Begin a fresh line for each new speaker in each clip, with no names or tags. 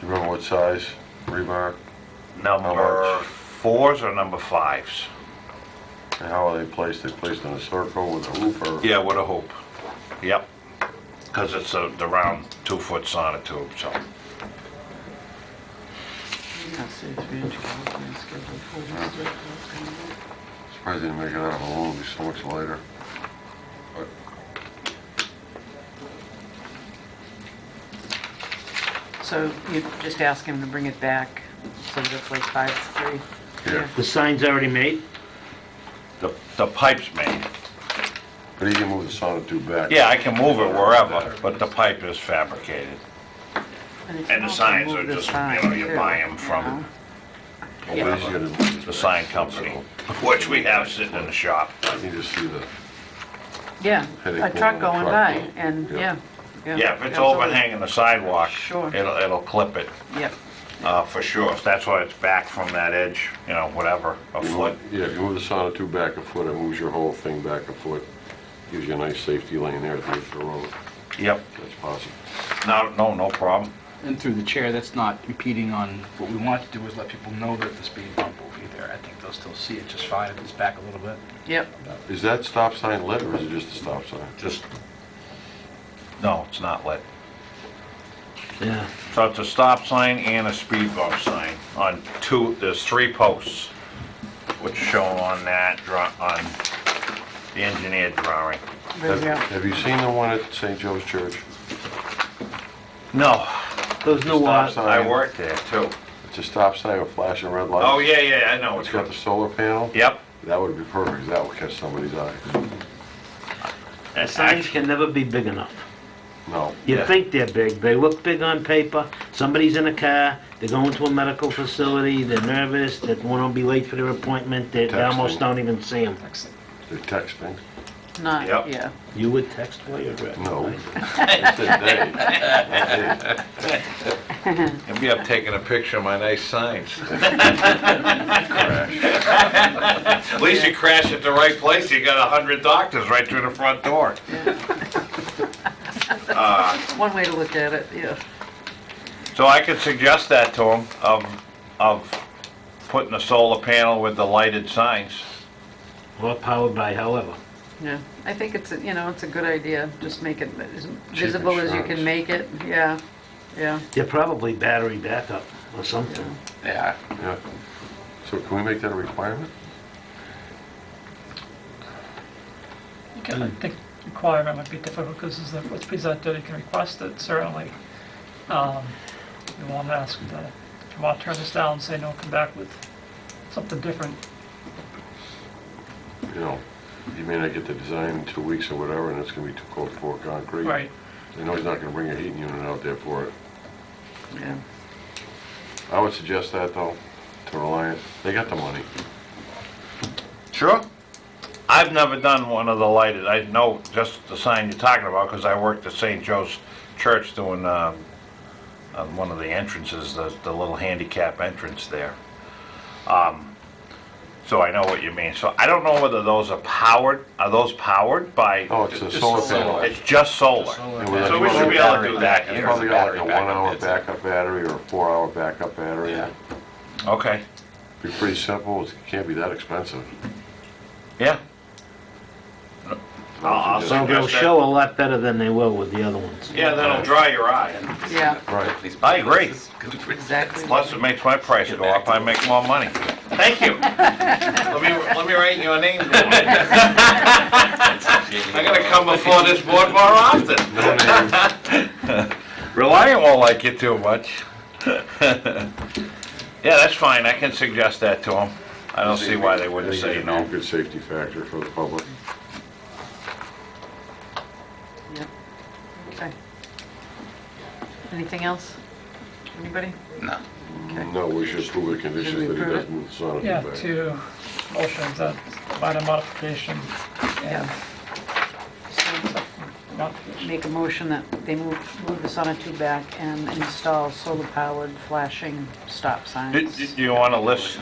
what size rebar,
Number
much?
fours or number fives?
and how are they placed? They placed in a circle with a hoop or?
Yeah, with a hoop. Yep. Because it's a- the round two-foot sonotube, so.
Surprised they didn't make it out of a movie so much later. But
So you just ask him to bring it back, so that it's like five to three?
Yeah.
The sign's already made?
The the pipe's made.
but he can move the sonotube back.
Yeah, I can move it wherever, but the pipe is fabricated.
it's
And the
also
signs are
move the
just, you
sign,
know, you
too,
buy 'em
you
from
know?
But he's
Yeah.
gonna move it
The sign
back.
company, which we have sitting in the shop.
I can just see the,
Yeah,
Headache
a
more than
truck
a
going
truck.
by, and,
Yeah.
yeah.
Yeah, if it's
absolutely.
overhanging the sidewalk,
Sure.
it'll it'll clip it,
Yep,
uh, for sure. That's why it's back from that edge, you know, whatever, a foot.
yeah, if you move the sonotube back a foot, it moves your whole thing back a foot. Gives you a nice safety lane there at the edge of the road.
Yep.
That's possible.
No, no, no problem.
And through the chair, that's not impeding on, what we want to do is let people know that the speed bump will be there. I think they'll still see it just fine if it's back a little bit.
yep,
Is that stop sign lit or is it just a stop sign?
Just, no, it's not lit.
Yeah.
So it's a stop sign and a speed bump sign on two, there's three posts, which show on that, draw on the engineered drawing.
there we
Have-
go.
Have you seen the one at St. Joe's Church?
No,
Those new ones,
I worked there too.
It's a stop sign with flashing red lights.
Oh, yeah, yeah, I know.
It's got the solar panel?
Yep.
That would be perfect, 'cause that would catch somebody's eye.
the signs can never be big enough.
No.
You
Yeah.
think they're big, they look big on paper, somebody's in a car, they're going to a medical facility, they're nervous, they want to be late for their appointment, they they
Texting.
almost don't even see them.
They're texting.
Not,
Yep.
yeah,
You would text while you're at it?
No. It's a day. Not they.
And me, I'm taking a picture of my nice signs. At least you crash at the right place, you got a hundred doctors right through the front door.
it's one way to look at it, yeah.
So I could suggest that to him, of, of putting a solar panel with the lighted signs.
Or powered by however.
Yeah, I think it's, a you know, it's a good idea, just make it as visible as you
insurance.
can make it, yeah, yeah.
They're probably battery backup or something.
Yeah.
Yeah. So can we make that a requirement?
You can, I think requirement would be difficult because it's the- what's presented, you can request it certainly. Um, You won't ask, the- if you want to turn this down, say no, come back with something different.
You know, you may not get the design in two weeks or whatever, and it's gonna be too cold to pour concrete.
Right,
They know he's not gonna bring a heating unit out there for it.
Yeah.
I would suggest that, though, to Reliant. They got the money.
Sure. I've never done one of the lighted, I know just the sign you're talking about, because I worked at St. Joe's Church doing, um, on one of the entrances, the, the little handicap entrance there. Um, So I know what you mean, so I don't know whether those are powered, are those powered by?
Oh, it's a
Just
solar
solar.
panel.
It's just solar?
solar
Yeah, well,
So we should be able to do that
It's
here.
probably got like a
Battery backup,
one-hour
it's-
backup battery or a four-hour backup battery.
Yeah.
Okay,
Be pretty simple, it can't be that expensive.
yeah. I'll
They'll
So they'll
suggest that.
show a lot better than they will with the other ones.
Yeah, that'll dry your eye.
Yeah.
Right.
I agree.
Exactly.
Plus, it makes my price go up, I make more money. Thank you. Let me, let me write your name down. I'm gonna come before this board more often. Reliant won't like you too much. Yeah, that's fine, I can suggest that to them. I don't see why they wouldn't say
It'd
no.
be a Good safety factor for the public.
Yep. Okay. Anything else? Anybody?
No.
No, we should approve the conditions
Should
that
we
he
approve it?
doesn't sign it
yeah,
back.
two motions, that minor modification and
So
modification.
Make a motion that they move, move the sonotube back and install solar-powered flashing stop
Do
signs.
do- do you wanna list,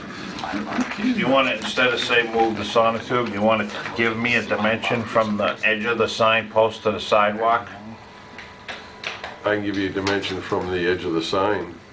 do you wanna, instead of say move the sonotube, you wanna give me a dimension from the edge of the signpost to the sidewalk?
I can give you a dimension from the edge of the sign